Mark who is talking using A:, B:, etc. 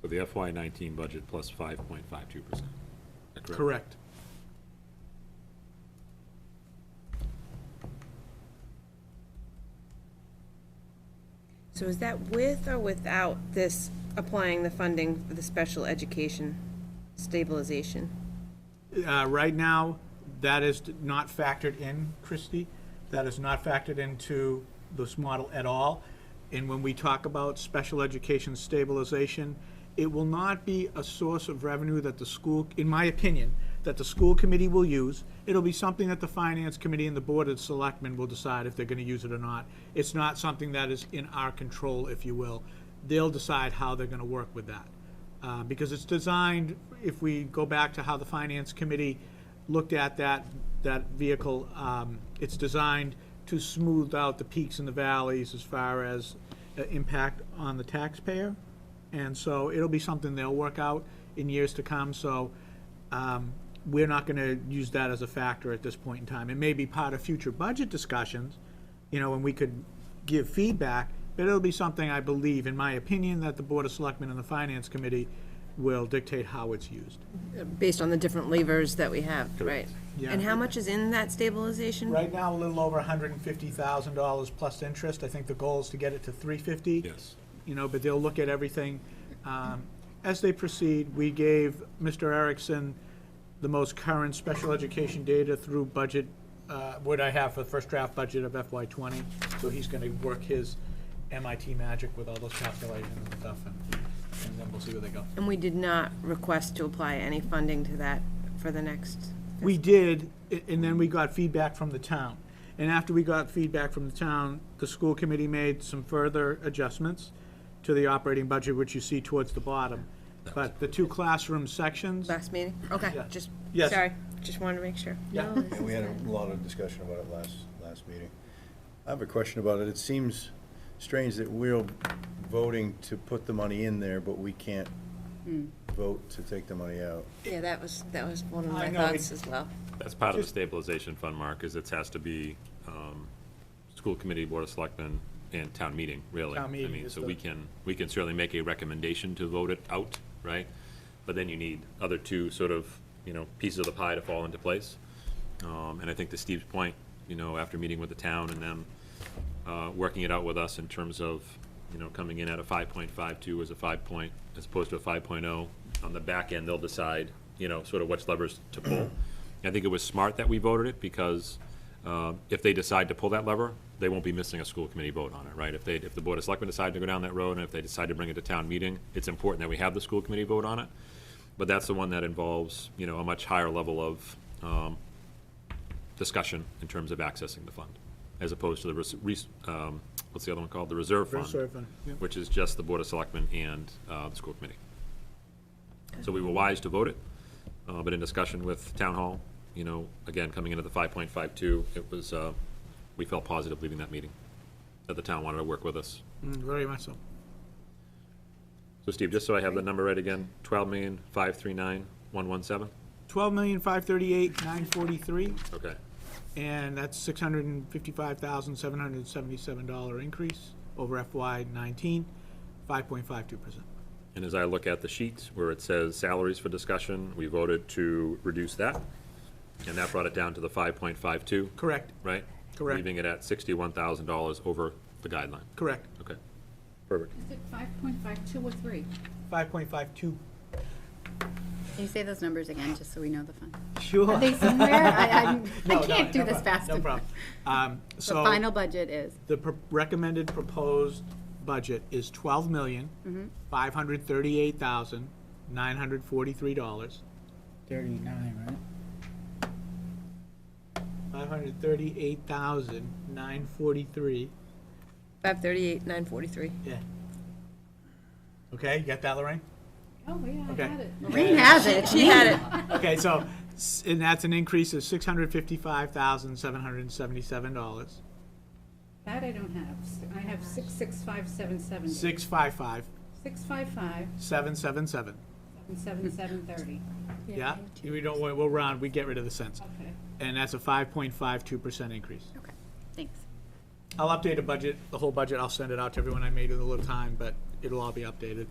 A: for the FY nineteen budget plus five point five two percent.
B: Correct.
C: So is that with or without this applying the funding for the special education stabilization?
B: Uh, Right now, that is not factored in, Christie. That is not factored into this model at all. And when we talk about special education stabilization, it will not be a source of revenue that the school, in my opinion, that the school committee will use. It'll be something that the finance committee and the board of selectmen will decide if they're going to use it or not. It's not something that is in our control, if you will. They'll decide how they're going to work with that uh, because it's designed, if we go back to how the Finance Committee looked at that, that vehicle, um, it's designed to smooth out the peaks and the valleys as far as uh, impact on the taxpayer. And so it'll be something they'll work out in years to come, so um, we're not going to use that as a factor at this point in time. It may be part of future budget discussions, you know, and we could give feedback, but it'll be something I believe, in my opinion, that the Board of Selectmen and the Finance Committee will dictate how it's used.
C: Based on the different levers that we have, right?
B: Yeah.
C: And how much is in that stabilization?
B: Right now, a little over hundred and fifty thousand dollars plus interest. I think the goal is to get it to three fifty.
A: Yes.
B: You know, but they'll look at everything. Um, As they proceed, we gave Mr. Erickson the most current special education data through budget, uh, what I have for the first draft budget of FY twenty. So he's gonna work his MIT magic with all those calculations and stuff, and, and then we'll see where they go.
C: And we did not request to apply any funding to that for the next,
B: We did, a- and then we got feedback from the town. And after we got feedback from the town, the school committee made some further adjustments to the operating budget, which you see towards the bottom. But the two classroom sections,
C: last meeting? Okay,
B: Yeah.
C: just,
B: Yes.
C: sorry, just wanted to make sure.
B: Yeah.
C: No, this
D: And we
C: is
D: had
C: fine.
D: a lot of discussion about it last, last meeting. I have a question about it. It seems strange that we're voting to put the money in there, but we can't vote to take the money out.
C: Yeah, that was, that was one of
B: I
C: my
B: know,
C: thoughts
B: it-
C: as well.
A: That's part of the
B: Just-
A: stabilization fund, Mark, is it has to be, um, school committee, board of selectmen, and town meeting, really.
B: Town meeting
A: I mean,
B: is
A: so
B: the-
A: we can, we can certainly make a recommendation to vote it out, right? But then you need other two sort of, you know, pieces of the pie to fall into place. Um, and I think to Steve's point, you know, after meeting with the town and them, uh, working it out with us in terms of, you know, coming in at a five point five two as a five point, as opposed to a five oh. On the back end, they'll decide, you know, sort of which levers to pull. I think it was smart that we voted it, because uh, if they decide to pull that lever, they won't be missing a school committee vote on it, right? If they, if the Board of Selectmen decide to go down that road, and if they decide to bring it to town meeting, it's important that we have the school committee vote on it. But that's the one that involves, you know, a much higher level of um, discussion in terms of accessing the fund, as opposed to the, res- res- um, what's the other one called? The reserve fund.
B: Reserve fund, yeah.
A: Which is just the Board of Selectmen and uh, the school committee. So we were wise to vote it, uh, but in discussion with Town Hall, you know, again, coming into the 5.52, it was, uh, we felt positive leaving that meeting, that the town wanted to work with us.
B: mm, very much so.
A: So Steve, just so I have the number right again, 12,539,117?
B: Twelve million, five thirty-eight, nine forty-three,
A: Okay.
B: and that's six hundred and fifty-five thousand, seven hundred and seventy-seven dollar increase over FY nineteen, five point five two percent.
A: And as I look at the sheet where it says salaries for discussion, we voted to reduce that, and that brought it down to the 5.52,
B: Correct,
A: right?
B: Correct.
A: Leaving it at $61,000 over the guideline.
B: correct.
A: Okay. Perfect.
E: Is it five point five two or three?
B: Five point five two.
E: Can you say those numbers again, just so we know the fund?
B: Sure.
E: Are they somewhere? I, I'm- I
B: No, no,
E: can't do
B: no
E: this
B: problem,
E: fast.
B: No
E: enough.
B: problem. Um,
E: The
B: So
E: final budget is,
B: the pro- recommended proposed budget is twelve million,
E: Mm-hmm.
B: five hundred thirty-eight thousand, nine hundred forty-three dollars.
F: Thirty-nine, right?
B: Five hundred thirty-eight thousand, nine forty-three.
C: Five thirty-eight, nine forty-three.
B: Yeah. Okay, you got that, Lorraine?
E: oh, yeah, I
B: Okay.
E: got it. Lorraine has it.
C: She had it.
B: Okay, so, s- and that's an increase of six hundred fifty-five thousand, seven hundred and seventy-seven dollars.
E: That I don't have. S- I have six, six, five, seven, seven.
B: Six five five,
E: Six, five, five,
B: seven seven seven.
E: and seven, seven, thirty.
B: Yeah? We don't, we'll we'll round, we get rid of the cents.
E: Okay,
B: And that's a five point five two percent increase.
E: okay, thanks.
B: I'll update a budget, the whole budget, I'll send it out to everyone I made in a little time, but it'll all be updated.